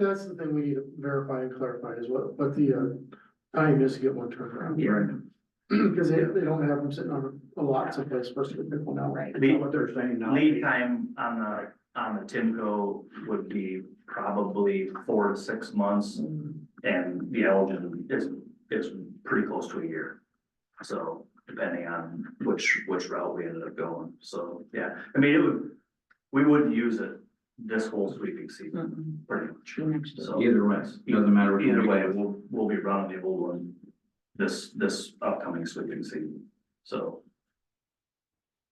that's the thing we need to verify and clarify is what, what the, uh, time is to get one turned around. Cause they, they don't have them sitting on a lot someplace, especially with people now. Right. Lead- What they're saying now. Lead time on the, on the Timco would be probably four to six months, and the Elgin is, is pretty close to a year. So, depending on which, which route we ended up going, so, yeah, I mean, it would, we wouldn't use it this whole sweeping season, Mm-mm. pretty much. Next year. So, Hmm. Either way, doesn't matter. which either way, we'll, we'll be running the old one this, this upcoming sweeping season, so.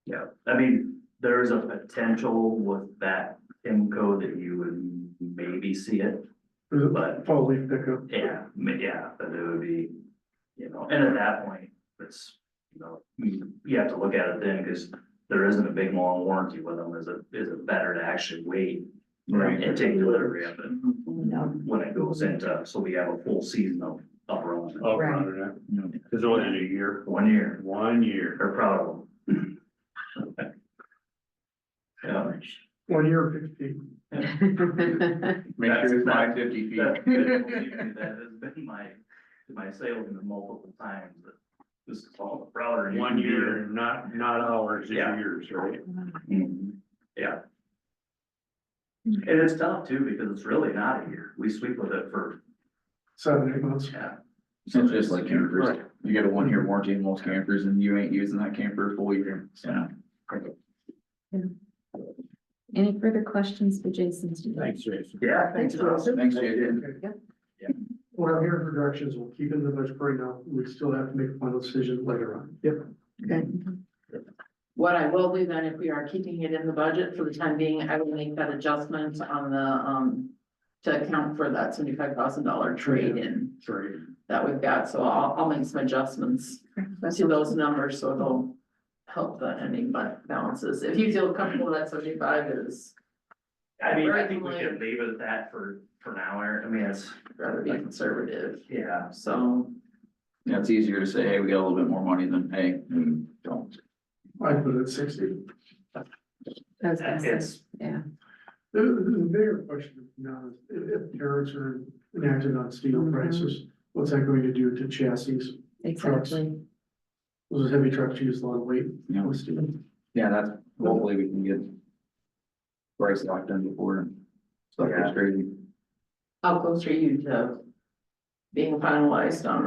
Yeah, I mean, there is a potential with that IMCO that you would maybe see it, but Fall leaf pickup. yeah, ma- yeah, but it would be, you know, and at that point, it's, you know, you, you have to look at it then, because there isn't a big long warranty with them, is it, is it better to actually wait Right. and take delivery of it? No, when it goes into, so we have a full season of, of running. Oh, Right. right, it's only a year, One year, one year. or probably. Yeah, One year fifty. Make sure it's That's- five fifty feet. that, that has been my, my salesman multiple times, but this is all the prouder. you One can be. year, not, not hours, it's Yeah. years, right? Mhm. Yeah. And it's tough too, because it's really not a year, we sweep with it for, Seven, eight months. yeah. So It's just like campers, Right. you get a one year warranty in most campers and you ain't using that camper a full year, so. any further questions for Jason today? Jason. Yeah. Thanks, Ross. Thanks, Jason. Okay. Yep. Yeah. What I'm hearing for directions, we'll keep it in the budget for right now, we still have to make a final decision later on. Yep. What I will do then, if we are keeping it in the budget for the time being, I will make that adjustment on the, um, to account for that seventy-five thousand dollar trade-in Sorry. that we've got, so I'll, I'll make some adjustments to those numbers, so it'll help the ending bu- balances. If you feel comfortable that seventy-five is, I mean, I think we can leave it at that for, for now, Eric, I mean, it's, rather be conservative, yeah. so. Yeah, it's easier to say, hey, we got a little bit more money than, hey, we don't. I put it at sixty. I was gonna say, It's, Yeah, The, the bigger question now is, if, if tariffs are enacted on steel Mhm. prices, what's that going to do to chassis? exactly. Those heavy trucks use a lot of weight Yeah, with steel. yeah, that's, hopefully we can get price locked in before and stuff Yeah. goes crazy. How close are you to being finalized on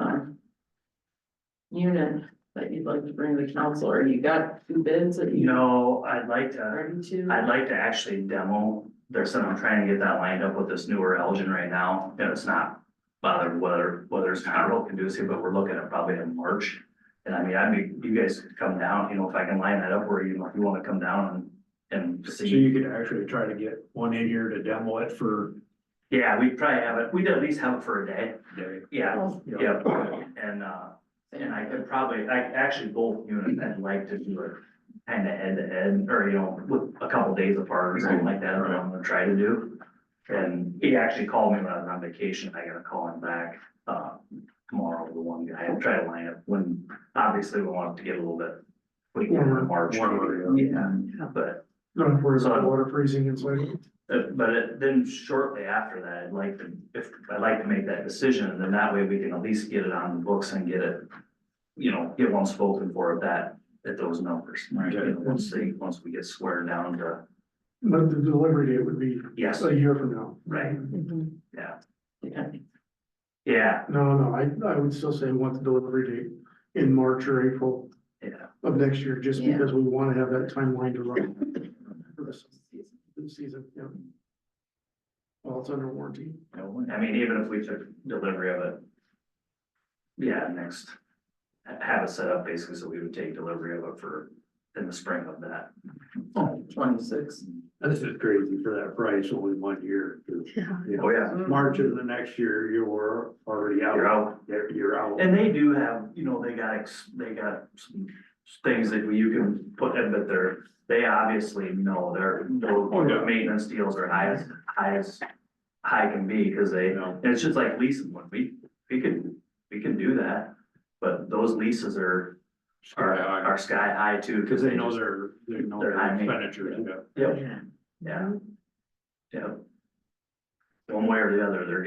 the unit that you'd like to bring to the council, or you got two bids that you you know, I'd like to, ready to? I'd like to actually demo. There's some, I'm trying to get that lined up with this newer Elgin right now, and it's not bothered whether, whether it's not real conducive, but we're looking at probably in March. And I mean, I mean, you guys could come down, you know, if I can line that up where you, if you wanna come down and, and So see. you could actually try to get one in here to demo it for Yeah, we'd probably have it, we'd at least have it for a day, a day. yeah, you know. yeah, and, uh. And I could probably, I actually both units, I'd like to do it kind of head to head, or you know, with a couple days apart or something like that, or I'm gonna try to do. And he actually called me when I was on vacation, I gotta call him back, uh, tomorrow, the one guy, and try to line up when, obviously, we want it to get a little bit. We can in March, Warmer, yeah, but, Not for the So- water freezing inside. uh, but it- then shortly after that, I'd like to, if, I'd like to make that decision, and then that way we can at least get it on the books and get it. You know, get one spoken for at that, at those numbers. Right. You know, Once they, once we get squared down to, But the delivery date would be yes, a year from now. right, Mhm. yeah, Yeah. yeah, No, no, I, I would still say want the delivery date in March or April yeah. of next year, just Yeah. because we want to have that timeline to run. For this this season, yeah. Well, it's under warranty. I mean, even if we took delivery of it. Yeah, next, ha- have it set up basically, so we would take delivery of it for, in the spring of that. Twenty-six. This is crazy for that price, only one year. 'cause, you know, Oh, yeah, March of the next year, you were already you're out, out. You're- you're out. And they do have, you know, they got, ex they got some things that you can put in, but they're, they obviously know their, their maintenance deals are high as, high as high can be, cause they, You and know, it's just like leasing one, we, we can, we can do that. But those leases are, are, are sky high too, Cause they know just- their, they know Their their timing. expenditures, yeah. Yep, yeah, yeah. one way or the other, they're